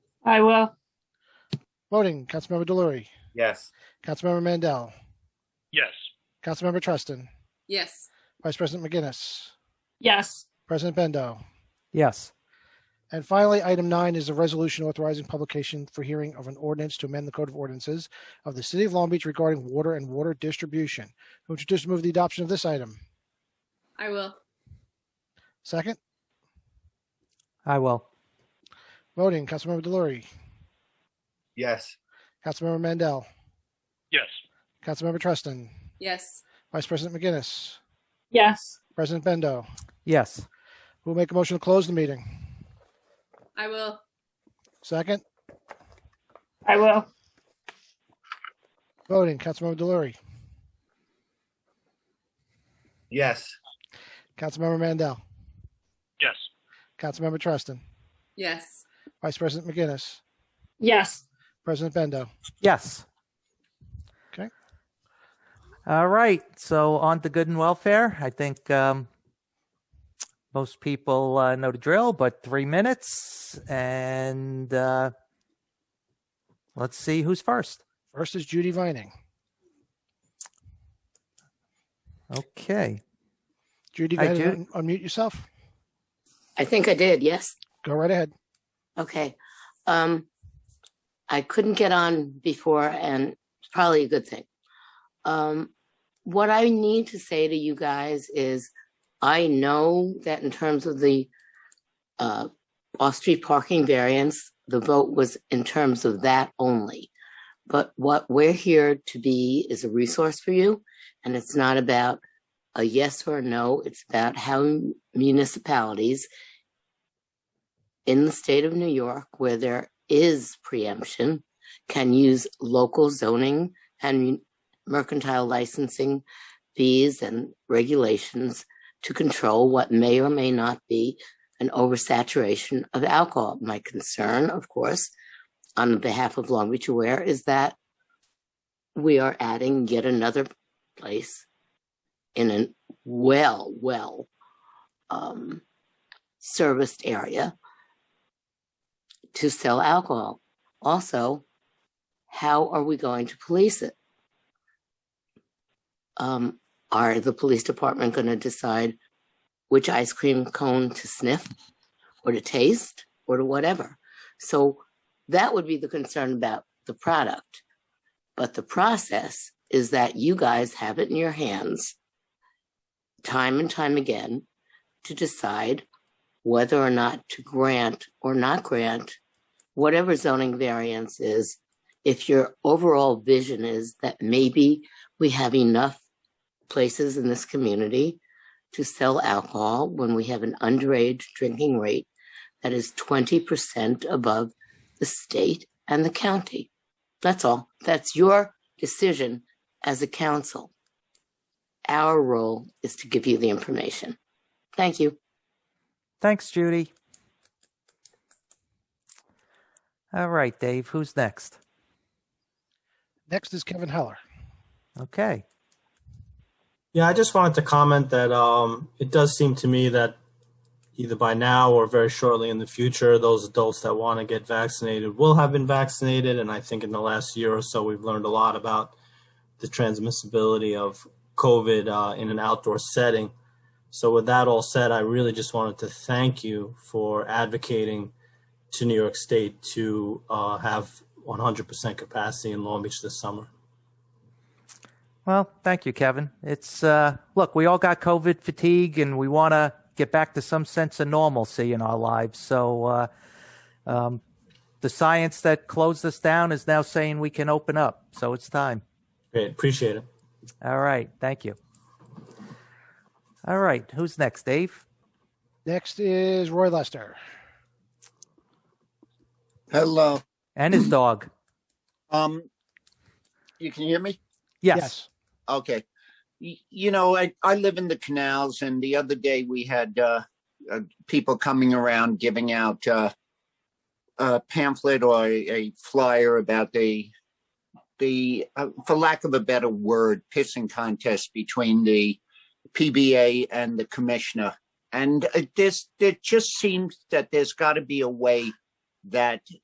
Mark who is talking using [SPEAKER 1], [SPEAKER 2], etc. [SPEAKER 1] I will.
[SPEAKER 2] Voting, Councilmember Delory,
[SPEAKER 3] Yes.
[SPEAKER 2] Councilmember Mandel,
[SPEAKER 4] Yes.
[SPEAKER 2] Councilmember Treston,
[SPEAKER 5] Yes.
[SPEAKER 2] Vice President McGinnis,
[SPEAKER 1] Yes.
[SPEAKER 2] President Bendo.
[SPEAKER 6] Yes.
[SPEAKER 2] And finally, item nine is a resolution authorizing publication for hearing of an ordinance to amend the Code of Ordinances of the City of Long Beach regarding water and water distribution. Who would introduce and move the adoption of this item?
[SPEAKER 5] I will.
[SPEAKER 2] Second,
[SPEAKER 6] I will.
[SPEAKER 2] voting, Councilmember Delory,
[SPEAKER 3] Yes.
[SPEAKER 2] Councilmember Mandel,
[SPEAKER 4] Yes.
[SPEAKER 2] Councilmember Treston,
[SPEAKER 5] Yes.
[SPEAKER 2] Vice President McGinnis,
[SPEAKER 1] Yes.
[SPEAKER 2] President Bendo.
[SPEAKER 6] Yes.
[SPEAKER 2] Who will make a motion to close the meeting?
[SPEAKER 5] I will.
[SPEAKER 2] Second,
[SPEAKER 1] I will.
[SPEAKER 2] voting, Councilmember Delory,
[SPEAKER 3] Yes.
[SPEAKER 2] Councilmember Mandel,
[SPEAKER 4] Yes.
[SPEAKER 2] Councilmember Treston,
[SPEAKER 5] Yes.
[SPEAKER 2] Vice President McGinnis,
[SPEAKER 1] Yes.
[SPEAKER 2] President Bendo.
[SPEAKER 6] Yes.
[SPEAKER 2] Okay.
[SPEAKER 6] All right. So on to good and welfare. I think um, most people uh, know the drill, but three minutes, and uh, let's see who's first.
[SPEAKER 2] First is Judy Vining.
[SPEAKER 6] Okay.
[SPEAKER 2] Judy, go
[SPEAKER 6] Hi,
[SPEAKER 2] ahead and
[SPEAKER 6] Jude.
[SPEAKER 2] un- unmute yourself.
[SPEAKER 7] I think I did, yes.
[SPEAKER 2] Go right ahead.
[SPEAKER 7] Okay. Um, I couldn't get on before, and it's probably a good thing. Um, what I need to say to you guys is I know that in terms of the uh, off street parking variance, the vote was in terms of that only. But what we're here to be is a resource for you, and it's not about a yes or a no, it's about how municipalities in the state of New York where there is preemption can use local zoning and mercantile licensing fees and regulations to control what may or may not be an oversaturation of alcohol. My concern, of course, on behalf of Long Beach Aware is that we are adding yet another place in a well, well um, serviced area to sell alcohol. Also, how are we going to police it? Um, are the police department going to decide which ice cream cone to sniff or to taste or to whatever? So that would be the concern about the product. But the process is that you guys have it in your hands time and time again to decide whether or not to grant or not grant whatever zoning variance is, if your overall vision is that maybe we have enough places in this community to sell alcohol when we have an underage drinking rate that is 20% above the state and the county. That's all. That's your decision as a council. Our role is to give you the information. Thank you.
[SPEAKER 6] Thanks, Judy. All right, Dave. Who's next?
[SPEAKER 2] Next is Kevin Heller.
[SPEAKER 6] Okay.
[SPEAKER 8] Yeah, I just wanted to comment that um, it does seem to me that either by now or very shortly in the future, those adults that want to get vaccinated will have been vaccinated. And I think in the last year or so, we've learned a lot about the transmissibility of COVID uh, in an outdoor setting. So, with that all said, I really just wanted to thank you for advocating to New York State to uh, have 100% capacity in Long Beach this summer.
[SPEAKER 6] Well, thank you, Kevin. It's uh, look, we all got COVID fatigue, and we want to get back to some sense of normalcy in our lives. So, uh, um, the science that closed us down is now saying we can open up. So it's time.
[SPEAKER 8] Great, appreciate it.
[SPEAKER 6] All right, thank you. All right, who's next, Dave?
[SPEAKER 2] Next is Roy Lester.
[SPEAKER 9] Hello.
[SPEAKER 6] And his dog.
[SPEAKER 9] Um, you can hear me?
[SPEAKER 6] Yes.
[SPEAKER 9] Okay. Y- You know, I, I live in the canals, and the other day we had uh, uh, people coming around giving out uh, a pamphlet or a, a flyer about the the, uh, for lack of a better word, pissing contest between the PBA and the commissioner. And uh, this, it just seems that there's got to be a way that